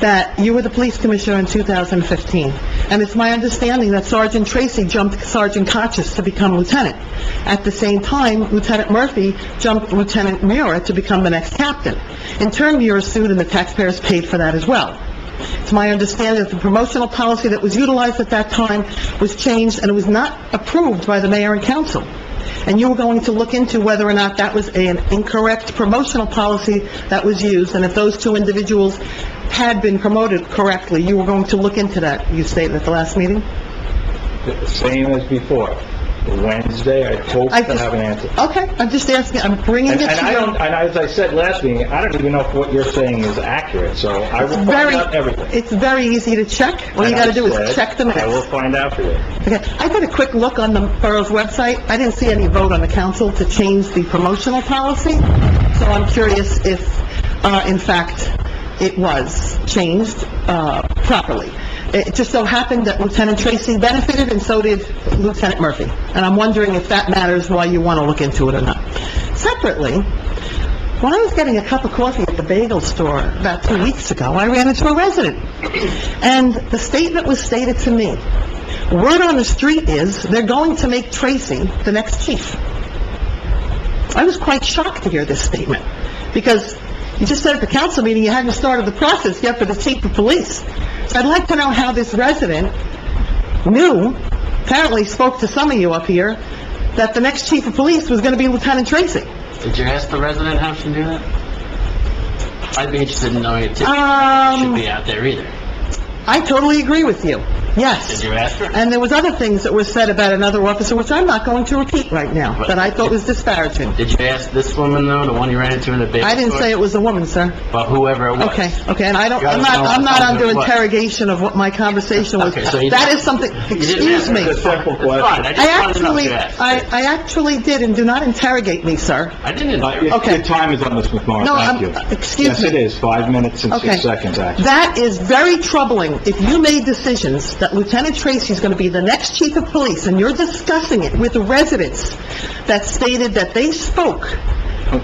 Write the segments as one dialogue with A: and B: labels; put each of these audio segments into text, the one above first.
A: that you were the police commissioner in 2015, and it's my understanding that Sergeant Tracy jumped Sergeant Cottis to become lieutenant. At the same time, Lieutenant Murphy jumped Lieutenant Mura to become the next captain. In turn, Mura sued, and the taxpayers paid for that as well. It's my understanding that the promotional policy that was utilized at that time was changed, and it was not approved by the mayor and council. And you were going to look into whether or not that was an incorrect promotional policy that was used, and if those two individuals had been promoted correctly, you were going to look into that, you stated at the last meeting?
B: The Same as before. Wednesday, I hope
A: I
B: to
A: just-
B: have an answer.
A: Okay, I'm just asking, I'm bringing it
B: And
A: to you.
B: and I don't, and as I said last meeting, I don't even know if what you're saying is accurate, so I will
A: It's
B: find
A: very-
B: out everything.
A: It's very easy to check. All you
B: And I
A: gotta do
B: said,
A: is check the
B: I will
A: minutes.
B: find out for you.
A: Okay, I did a quick look on the borough's website. I didn't see any vote on the council to change the promotional policy, so I'm curious if, uh, in fact, it was changed, uh, properly. It just so happened that Lieutenant Tracy benefited, and so did Lieutenant Murphy. And I'm wondering if that matters, why you wanna look into it or not. Separately, when I was getting a cup of coffee at the bagel store about two weeks ago, I ran into a resident. And the statement was stated to me, word on the street is they're going to make Tracy the next chief. I was quite shocked to hear this statement, because you just said at the council meeting you hadn't started the process yet for the chief of police. So I'd like to know how this resident knew, apparently spoke to some of you up here, that the next chief of police was going to be Lieutenant Tracy.
C: Did you ask the resident how to do that? I'd be interested in knowing it too. It Should
A: Um,
C: be out there either.
A: I totally agree with you,
C: Did
A: yes.
C: you ask her?
A: And there was other things that were said about another officer, which I'm not going to repeat right now, that I thought was disparaging.
C: Did you ask this woman though, the one you ran into in the basement?
A: I didn't say it was a woman, sir.
C: But whoever it was.
A: Okay, okay, and I don't,
C: You
A: I'm
C: gotta
A: not,
C: know
A: I'm not
C: what
A: under
C: it was.
A: interrogation of what my conversation was.
C: Okay, so you-
A: That is something,
C: You didn't
A: excuse
C: ask her.
A: me.
C: It's fine. It's fine. I just
A: I
C: wanted to know if
A: actually,
C: you asked.
A: I, I actually did, and do not interrogate me, sir.
C: I didn't.
B: Uh, your-
A: Okay.
B: Your time is on this, Ms. Morris,
A: No,
B: thank
A: I'm-
B: you.
A: excuse
B: Yes, it
A: me.
B: is, five minutes and
A: Okay.
B: six seconds, actually.
A: That is very troubling. If you made decisions that Lieutenant Tracy is going to be the next chief of police, and you're discussing it with the residents that stated that they spoke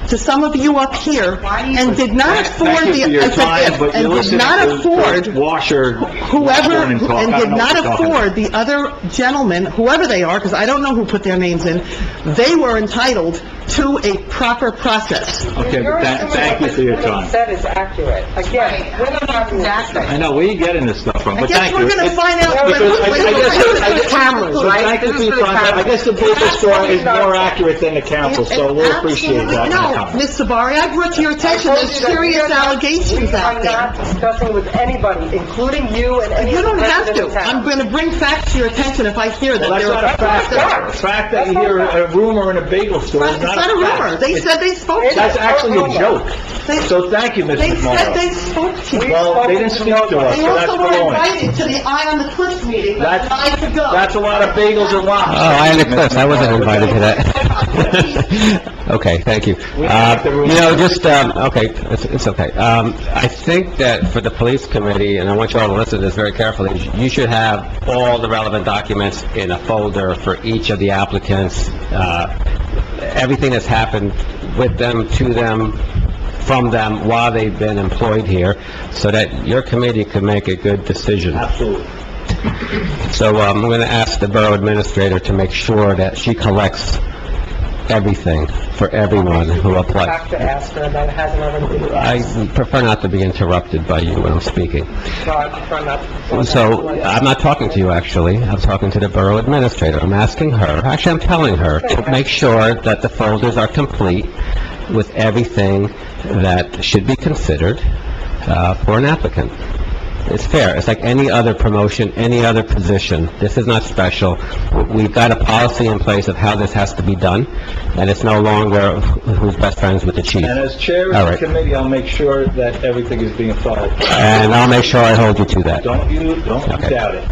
A: to some of you up here and did not afford
B: Thank you
A: the...
B: for your
A: as a
B: time,
A: gift,
B: but you're
A: and did
B: listening
A: not
B: to
A: afford
B: George Washer.
A: whoever,
B: Warren talk. I
A: and
B: don't
A: did
B: know
A: not
B: what you're talking about.
A: afford, the other gentlemen, whoever they are, because I don't know who put their names in, they were entitled to a proper process.
B: Okay, but tha- thank you for your time.
D: That is accurate. Again, we're not talking
B: I know, where you getting this stuff from,
A: I
B: but
A: guess
B: thank you.
A: we're going to
B: It's-
A: find out...
B: Because I- I guess- I
D: the
B: guess-
D: cameras,
B: so
D: right?
B: thank you
D: This
B: for
D: is
B: your
D: for the
B: time. I
D: cameras.
B: guess the Blizzard story is more accurate than the council, so we'll appreciate
A: Absolutely.
B: that. in the
A: No,
B: comments.
A: Ms. Sabari, I brought to your attention, there's serious allegations out
D: We are not
A: there.
D: discussing with anybody, including you and any
A: You don't have
D: resident
A: to.
D: in town.
A: I'm going to bring facts to your attention if I hear that
B: Well, that's
A: there
B: not a fact,
A: are...
B: though. The fact that you hear a rumor in a bagel store is
A: It's
B: not
A: not a
B: a
A: rumor.
B: fact.
A: They said they spoke to
B: That's
A: you.
B: actually a joke.
A: They-
B: So thank you,
A: They
B: Mrs.
A: said
B: Morrow.
A: they spoke to you.
B: Well, they didn't speak to us,
A: They
B: so that's
A: also were
B: baloney.
A: invited to the Eye on the Cliff meeting, but
B: That's-
A: denied to go.
B: That's a lot of bagels and
E: Oh,
B: lobster.
E: I understand. I wasn't invited to that. Okay, thank you.
B: We don't have to
E: Uh,
B: ruin
E: You know,
B: it.
E: just, um, okay, it's it's okay. Um, I think that for the police committee, and I want you all to listen to this very carefully, you should have all the relevant documents in a folder for each of the applicants, uh, everything that's happened with them, to them, from them, while they've been employed here, so that your committee can make a good decision.
B: Absolutely.
E: So um, I'm going to ask the borough administrator to make sure that she collects everything for everyone who applies.
D: Have to ask her about it, hasn't already been
E: I prefer not to be interrupted by you when I'm speaking.
D: brought from up.
E: So uh, I'm not talking to you, actually. I'm talking to the borough administrator. I'm asking her, actually, I'm telling her to make sure that the folders are complete with everything that should be considered uh, for an applicant. It's fair. It's like any other promotion, any other position. This is not special. We've got a policy in place of how this has to be done, and it's no longer who's best friends with the chief.
B: And as chair of
E: All
B: the
E: right.
B: committee, I'll make sure that everything is being followed.
E: And I'll make sure I hold you to that.
B: Don't you, don't you
E: Okay.
B: doubt it.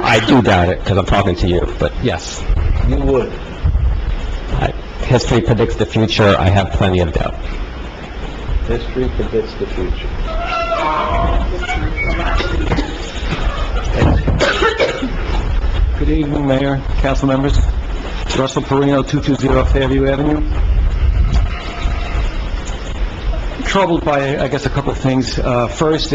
E: I do doubt it, because I'm talking to you, but yes.
B: You would.
E: I- History predicts the future, I have plenty of doubt.
B: History predicts the future.
F: Good evening, Mayor, council members. Russell Perino, 220 Fairview Avenue. Troubled by, I guess, a couple of things. Uh, First